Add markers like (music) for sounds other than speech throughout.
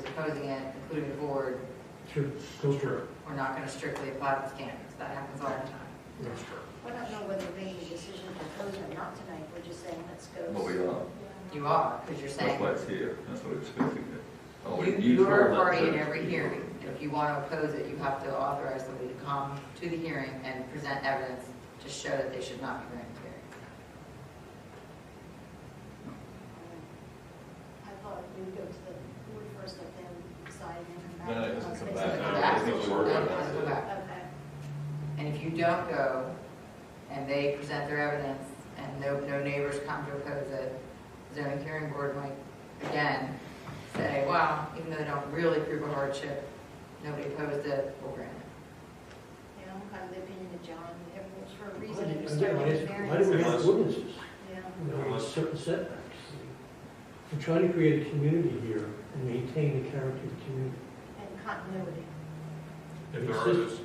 proposing it, including the board, Sure, goes through. we're not going to strictly apply the standards. That happens all the time. That's true. We don't know whether we're making a decision to close or not tonight, we're just saying, let's go. Well, we are, You are, because you're that's saying, why it's here, that's what it's expecting it. Oh, we- you- you are a told us party that- in every hearing. If you want to oppose it, you have to authorize somebody to come to the hearing and present evidence to show that they should not be granted variance. I thought we'd go to the board first, but then decide and No, then. no, it doesn't come Okay. back. Come I don't think we're working on Then that. come back. Okay. And if you don't go, and they present their evidence, and no, no neighbors come to oppose it, zoning hearing board might, again, say, wow, even though they don't really prove a hardship, nobody opposed it, we'll grant it. You know, I'm kind of the opinion that John, everyone's for a reason, and you start Why with did- why do we variance. have ordinances? Yeah, You know, with certain setbacks. We're trying to create a community here and maintain the character of the community. and continuity. If there are those, if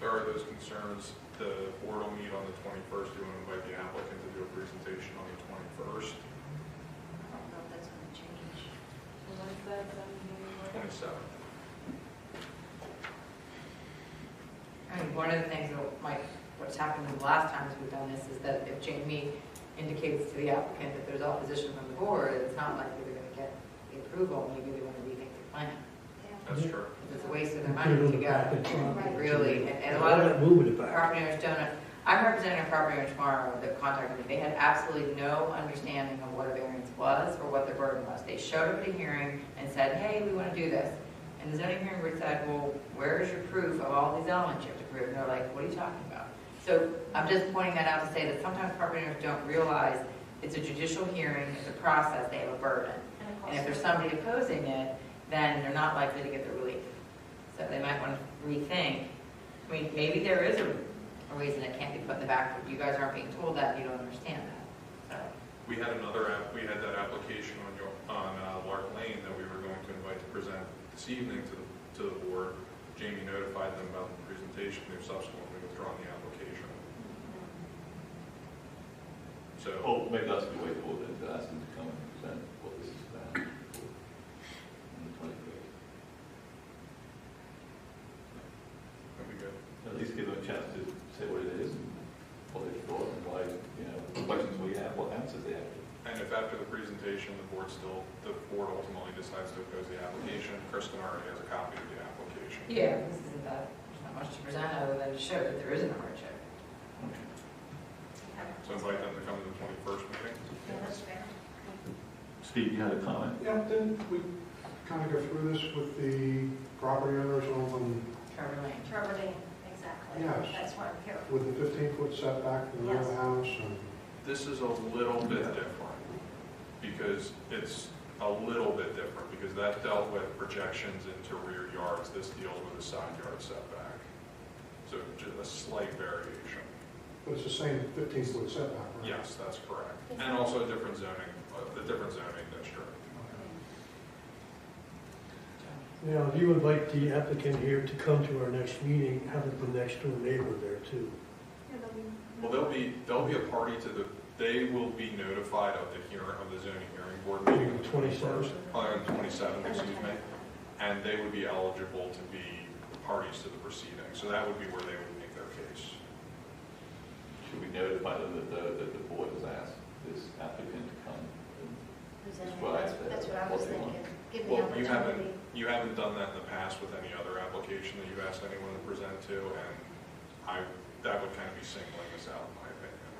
there are those concerns, the board will meet on the twenty-first, you want to invite the applicant to do a presentation on the twenty-first, I don't know if that's going to change. twenty-seventh. I mean, one of the things that might, what's happened the last times we've done this is that if Jamie indicates to the applicant that there's opposition from the board, it's not likely they're gonna get the approval, maybe they wanna rethink their plan. Yeah. That's true. Because it's a waste of their money to go, Right. really, and- and a lot of Moving it back. property owners don't, I'm representing a property owner tomorrow that contacted me, they had absolutely no understanding of what a variance was or what their burden was. They showed up at a hearing and said, hey, we want to do this. And the zoning hearing board said, well, where is your proof of all these elements you have to prove? And they're like, what are you talking about? So I'm just pointing that out to say that sometimes property owners don't realize it's a judicial hearing, it's a process, they have a burden. And it And costs if there's somebody opposing it, then they're not likely to get the relief. So they might want to rethink. I mean, maybe there is a a reason it can't be put in the back, but you guys aren't being told that, you don't understand that. So, We had another, app- we had that application on your, on uh, Lark Lane that we were going to invite to present this evening to, the to the board. Jamie notified them about the presentation, they've subsequently withdrawn the application. So, Well, Oh, maybe that's the way forward, then, to ask them to come and present what this is (laughs) about on the twenty-first. that'd be good. At least give them a chance to say what it is, and what they thought, and why, you know, what questions we have, what answers they have. And if after the presentation, the board still, the board ultimately decides to oppose the application, Kristen already has a copy of the application. yeah, this isn't that, there's not much to present other than to show that there isn't a hardship. So invite them to come to the twenty-first meeting. Yeah, that's fair. Steve, you had a comment? Yeah, then we kind of go through this with the property owners on Trevor Lane. Trevor Lane, exactly. Yes. That's why I'm here. the, with the fifteen foot setback from the rear of the Yes. house and. This is a little bit different, because it's a little bit different, because that dealt with projections into rear yards, this deals with a side yard setback. So just a slight variation. But it's the same fifteen foot setback, right? Yes, that's correct. And also a different zoning, uh, the different zoning district. Mm-hmm. Now, if you invite the applicant here to come to our next meeting, have the next door neighbor there too. Well, they'll be, they'll be a party to the, they will be notified of the hearing, of the zoning hearing board meeting on the 27th. twenty-first. On the twenty-seventh, excuse me. and they would be eligible to be parties to the proceeding. So that would be where they would make their case. Should we notify them that the, that the board has asked this applicant to come? and- Who's That's in? what I That's said. that's what I What was they want. thinking. Give the Well, you opportunity. haven't, you haven't done that in the past with any other application that you've asked anyone to present to, and I, that would kind of be singling us out, in my opinion.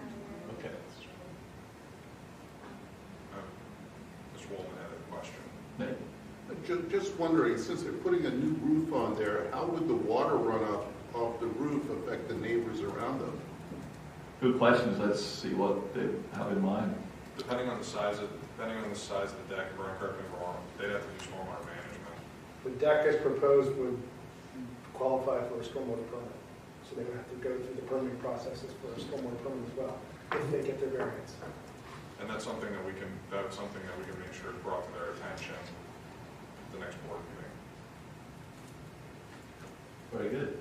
Okay. That's true. Um, Ms. Wolman had a question. No? Ju- Just wondering, since they're putting a new roof on there, how would the water runoff off the roof affect the neighbors around them? Good questions, let's see what they have in mind. Depending on the size of, depending on the size of the deck, if I'm correct, if I'm wrong, they'd have to do stormwater management. The deck as proposed would qualify for a stormwater permit, so they would have to go through the permitting processes for a stormwater permit as well, if they get their variance. And that's something that we can, that's something that we can make sure is brought to their attention at the next board meeting. Very good.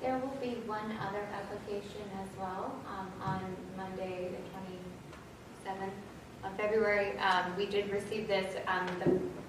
There will be one other application as well um, on Monday, the 27th of February. Um, We did receive this, um, the